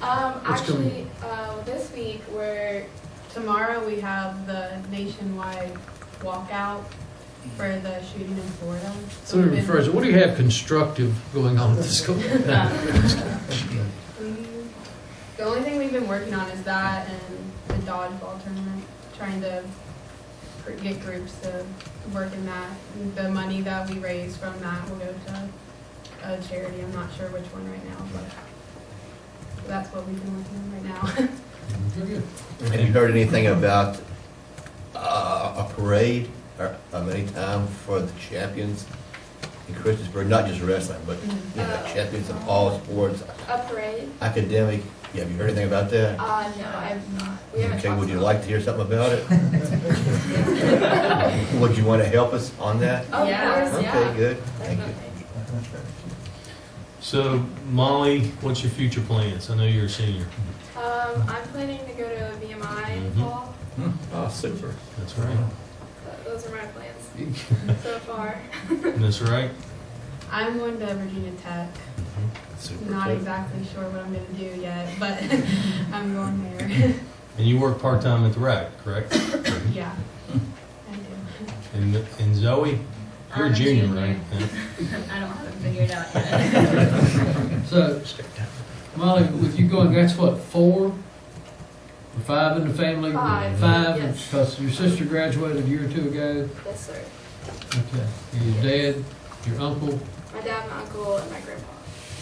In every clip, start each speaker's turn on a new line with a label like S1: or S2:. S1: Um,
S2: What's
S1: actually, uh, this week, we're, tomorrow, we have the nationwide walkout for the shooting in Florida.
S2: So let
S1: we've
S2: me
S1: been-
S2: rephrase it. What do you have constructive going on at the school?
S1: Mm, The only thing we've been working on is that and the dodgeball tournament, trying to pr- get groups to work in that. The money that we raise from that will go to a charity, I'm not sure which one right now, but that's what we've been working on right now.
S3: Have you heard anything about uh, a parade or of any time for the champions in Christiansburg? Not just wrestling, but you know, champions of all sports,
S4: Mm-hmm. Uh, A parade?
S3: academic. Yeah, have you heard anything about that?
S4: Uh, no, I've not. We haven't
S3: Okay,
S4: talked
S3: would you
S4: about
S3: like to hear something about it? Would you want to help us on that?
S4: Of
S1: Oh, Yeah.
S4: course, Uh, yeah.
S3: Okay, good. Thank you.
S4: Definitely.
S5: So Molly, what's your future plans? I know you're a senior.
S4: Um, I'm planning to go to VMI in the
S3: Mm-hmm.
S5: Mhm.
S4: fall.
S3: Oh, super.
S5: That's right.
S4: Th- Those are my plans so far.
S5: That's right.
S1: I'm going to Virginia Tech. Not
S3: Super.
S1: exactly sure what I'm going to do yet, but I'm going there.
S5: And you work part-time at the rec, correct?
S1: yeah, I do.
S5: And, and Zoe, you're a
S6: I'm a
S5: junior,
S6: junior.
S5: right? Yeah.
S6: I don't have it figured out yet.
S7: So, Molly, with you going, that's what, four? Or Five in the family?
S4: Five, yes.
S7: because your sister graduated a year or two ago.
S4: Yes, sir.
S7: Okay. Your dad, your uncle,
S4: My dad, my uncle, and my grandpa,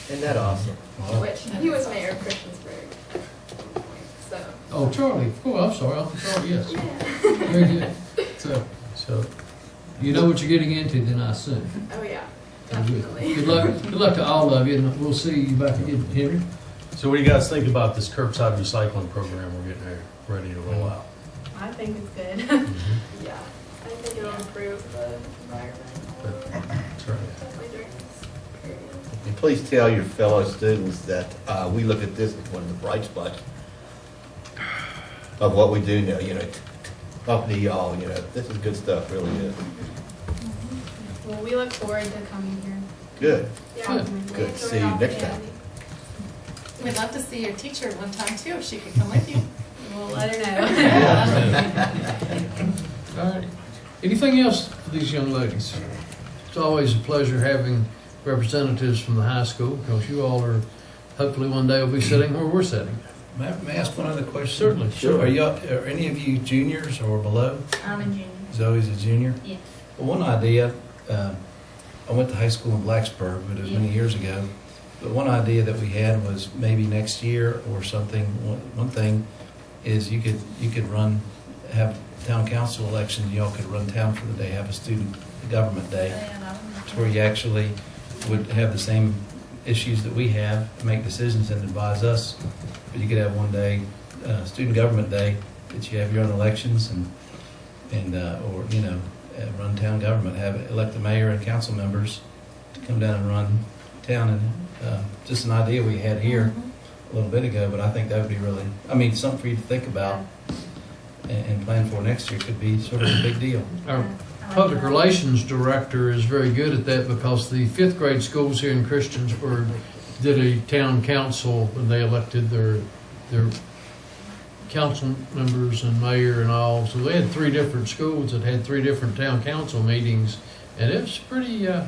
S3: Isn't that awesome?
S4: which he was mayor of Christiansburg. at one point, So,
S7: oh, Charlie, oh, I'm sorry, Uncle Charlie, yes,
S4: yeah.
S7: very good. So,
S5: So,
S7: you know what you're getting into then, I assume.
S4: Oh, yeah.
S7: Very good.
S4: Definitely.
S7: Good luck, good luck to all of you, and we'll see you back again, Henry.
S5: so what do you guys think about this curbside recycling program we're getting there, ready to roll out?
S1: I think it's good.
S4: Yeah. I think it'll improve the environment.
S5: That's right.
S4: Definitely during this period.
S3: And please tell your fellow students that uh, we look at this as one of the bright spots of what we do now, you know, t- t- up to y'all, you know, this is good stuff, really is.
S1: Well, we look forward to coming here.
S3: Good.
S4: Yeah.
S3: Good.
S4: We
S3: See you
S4: enjoyed
S3: next
S4: all the
S3: time.
S8: We'd love to see your teacher one time too, if she could come with you.
S1: We'll let her know.
S7: All right. Anything else for these young ladies? It's always a pleasure having representatives from the high school, because you all are, hopefully one day will be sitting where we're sitting.
S9: May I may I ask one other question?
S7: Certainly,
S9: Are y'all, are any of you juniors or below?
S6: I'm a junior.
S9: Zoe's a junior?
S6: Yes.
S9: One idea, um, I went to high school in Blacksburg, but it was many years ago. But one idea that we had was maybe next year or something, one one thing is you could, you could run, have town council elections, y'all could run town for the day, have a student government day. to where you actually would have the same issues that we have, make decisions and advise us. But you could have one day, uh, student government day, that you have your own elections and, and, uh, or, you know, uh, run town government, have, elect the mayor and council members to come down and run town and, uh, just an idea we had here a little bit ago, but I think that would be really, I mean, something for you to think about and, and plan for next year could be sort of a big deal.
S7: Our public relations director is very good at that, because the fifth grade schools here in Christiansburg did a town council, when they elected their, their council members and mayor and all. So they had three different schools that had three different town council meetings, and it was pretty, uh,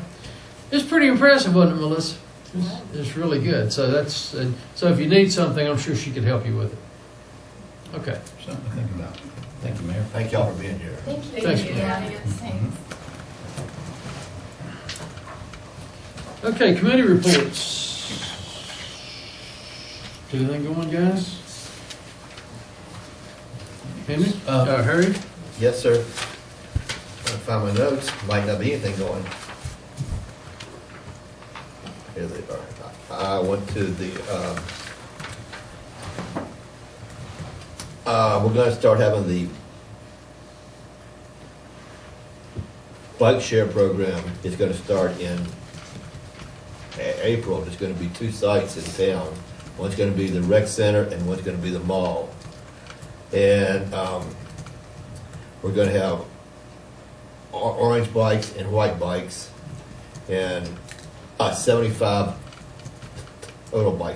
S7: it's pretty impressive, wasn't it, Melissa? It's- It's really good. So that's, and so if you need something, I'm sure she could help you with it. Okay.
S9: Something to think about. Thank you, Mayor.
S3: Thank y'all for being here.
S8: Thank you.
S7: Thanks,
S1: Thank
S7: Mary.
S1: you.
S3: Mm-hmm.
S8: Thanks.
S7: Okay, committee reports. Anything going, guys? Henry?
S9: Uh,
S7: Uh, Harry?
S3: Yes, sir. Gotta Find my notes, might not be anything going. Here they are. I went to the, um, uh, we're gonna start having the bike share program is gonna start in A- April. There's gonna be two sites in town. One's gonna be the rec center and one's gonna be the mall. And, um, we're gonna have or- orange bikes and white bikes, and uh, seventy-five total bikes.